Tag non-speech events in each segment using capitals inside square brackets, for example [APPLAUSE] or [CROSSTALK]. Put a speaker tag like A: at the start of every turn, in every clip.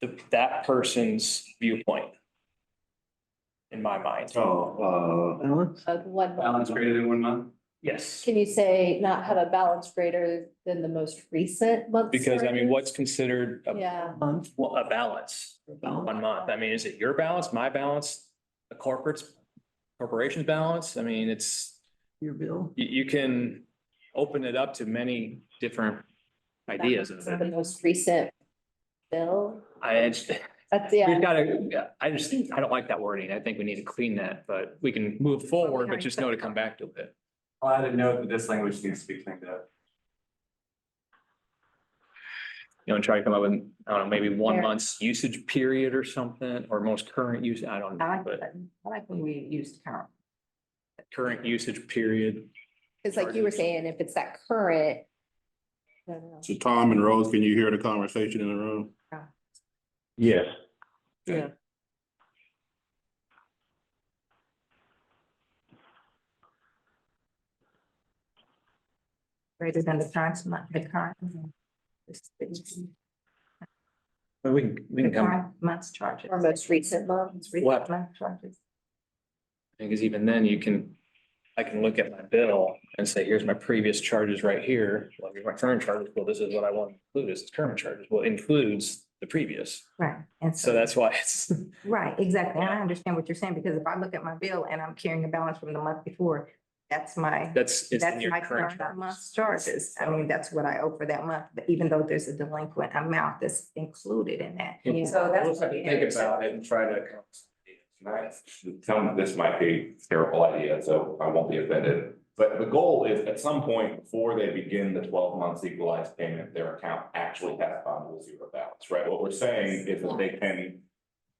A: the, that person's viewpoint. In my mind,
B: Oh,
C: Balance?
D: of one.
B: uh,
D: month.
B: balance greater than one month?
A: yes,
D: Can you say not have a balance greater than the most recent month?
A: because I mean, uh, what's considered a,
D: Yeah,
C: Month?
A: well, a balance,
C: Balance?
A: one month? I mean, is it your balance, my balance, a corporate's, corporation's balance? I mean, it's,
C: Your bill?
A: you, you can open it up to many different ideas of
D: the
A: it.
D: most recent bill,
A: I, just-
D: that's,
A: we've
D: yeah,
A: gotta, I just, I don't like that wording. I think we need to clean that, but we can move forward, but just know to come back to it.
B: I'll add a note that this language needs to be cleaned up.
A: You know, and try to come up with, I don't know, maybe one
D: Fair.
A: month's usage period or something, or most current use, I don't
E: I
A: know,
E: like,
A: but
E: that. I like when we used current.
A: current usage period.
D: it's like you were saying, if it's that current. I don't know.
F: So Tom and Rose, can you hear the conversation in the room?
G: Yes,
E: Greater than the current, month. the current. The
A: But we can, we can come, I
E: current month's charges.
D: Or most recent month,
E: It's recent month charges.
A: think, because even then you can, I can look at my bill and say, here's my previous charges right here. Well, here's my current charges. Well, this is what I want to include as current charges. Well, includes the previous.
E: Right, and
A: So
E: so,
A: that's why it's, [LAUGHS]
E: right, exactly, and I understand what you're saying, because if I look at my bill and I'm carrying a balance from the month before, that's my,
A: that's, it's in
E: that's
A: your
E: my
A: current
E: current
A: charges.
E: month's charges. I mean, that's what I owe for that month, but even though there's a delinquent amount that's included in that.
A: Yeah.
E: So that's.
B: We'll have to Think about it and try to. come up with
H: Nice. Tell me this might be a terrible idea, so I won't be offended. But the goal is at some point before they begin the twelve months equalized payment, their account actually has fundable zero balance, right? What we're saying is that they can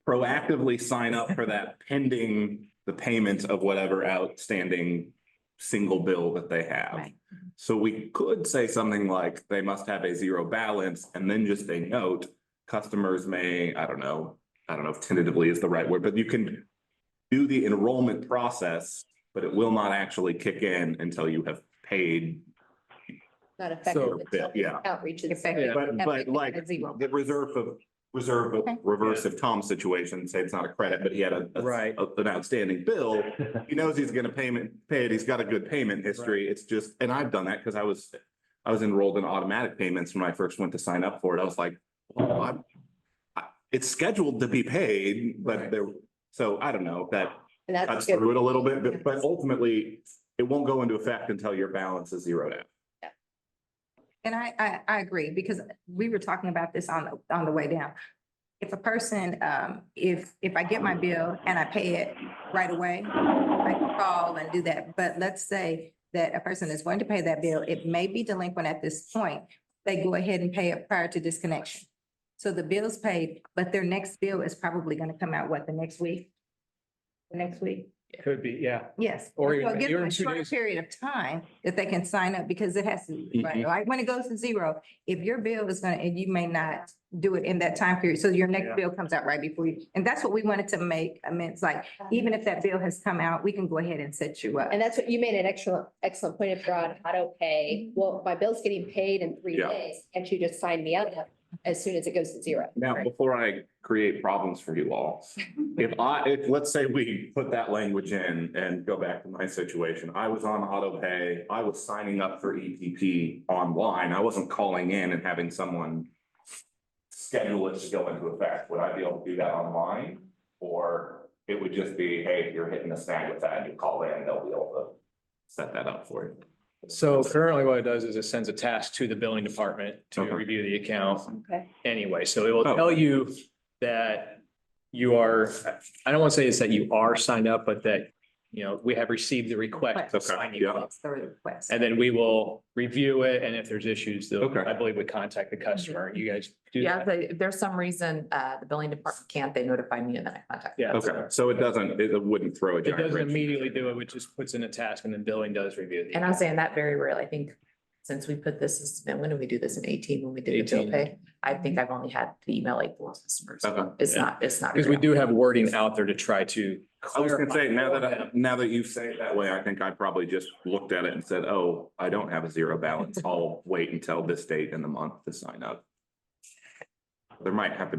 H: proactively sign up for that pending the payment of whatever outstanding single bill that they have.
E: Right.
H: So we could say something like they must have a zero balance and then just a note, customers may, I don't know, I don't know if tentatively is the right word, but you can do the enrollment process, but it will not actually kick in until you have paid.
D: not effective.
H: So- Yeah.
D: Outreach.
E: Effective.
H: But, but
E: Everything
H: like
E: at zero.
H: the reserve of, reserve of
E: Okay.
H: reverse of Tom's situation, say it's not a credit, but he had a. a-
A: Right.
H: a- An outstanding bill. He knows he's gonna payment, pay it. He's got a good payment history. It's just, and I've done that because I was, I was enrolled in automatic payments when I first went to sign up for it. I was like, well, I'm, I, it's scheduled to be paid, but
A: Right.
H: there, so I don't know, if that
D: And that's
H: cuts
D: good.
H: through it a little bit, but, but ultimately, it won't go into effect until your balance is zeroed out.
E: And I, I, I agree, because we were talking about this on, the on the way down. If a person, um, if, if I get my bill and I pay it right away, I can call and do that. But let's say that a person is going to pay that bill, it may be delinquent at this point. They go ahead and pay it prior to disconnection. So the bill's paid, but their next bill is probably gonna come out, what, the next week? The next week?
A: Could be, yeah.
E: Yes.
A: Or
E: So
A: even-
E: give
A: even
E: them a
A: two
E: short
A: days.
E: period of time that they can sign up because it has to, right,
A: Mm-hmm.
H: Mhm.
E: like, when it goes to zero, if your bill is gonna, and you may not do it in that time period, so your
A: Yeah.
E: next bill comes out right before you. And that's what we wanted to make amends, like, even if that bill has come out, we can go ahead and set you up.
D: And that's what you made an excellent, excellent point of drawing auto pay.
E: Mm-hmm.
D: Well, my bill's getting paid in three
H: Yeah.
D: days. Can't you just sign me up as soon as it goes to zero?
H: Now,
E: Right.
H: before I create problems for you all, if I, if, let's say we put that language in and go back to my situation, I was on auto pay, I was signing up for EPP online, I wasn't calling in and having someone schedule it to go into effect, would I be able to do that online? Or it would just be, hey, if you're hitting a snag with that, you call in, they'll be able to set that up for you.
A: So currently what it does is it sends a task to the billing department to
H: Okay.
A: review the account
D: Okay.
A: anyway. So it will
H: Oh.
A: tell you that you are, I don't want to say it's that you are signed up, but that, you know, we have received the request to
H: Okay,
A: sign you
H: yeah.
A: up.
E: That's the request.
A: And then we will review it. And if there's issues, they'll,
H: Okay.
A: I believe we contact the customer. You guys do
E: Mm-hmm. Yeah,
A: that.
E: they- if there's some reason, uh, the billing department can't, they notify me and then I contact.
A: Yeah.
H: Okay, so it doesn't, it wouldn't throw a
A: It
H: giant
A: doesn't
H: wrench.
A: immediately do it, which just puts in a task and then billing does review the.
E: And I'm saying that very rarely, I think, since we put this, it's been, when did we do this, in eighteen, when we did the bill
A: 18.
E: pay? I think I've only had to email like four customers,
H: Okay.
E: it's
A: Yeah.
E: not, it's not.
A: Because we
E: real.
A: do have wording out there to try to.
H: I was gonna say, now that,
A: clarify
H: I- now that you say it that way, I think I probably just looked at it and said, oh, I don't have a zero balance. I'll wait until this date in the month to sign up. There might have to be.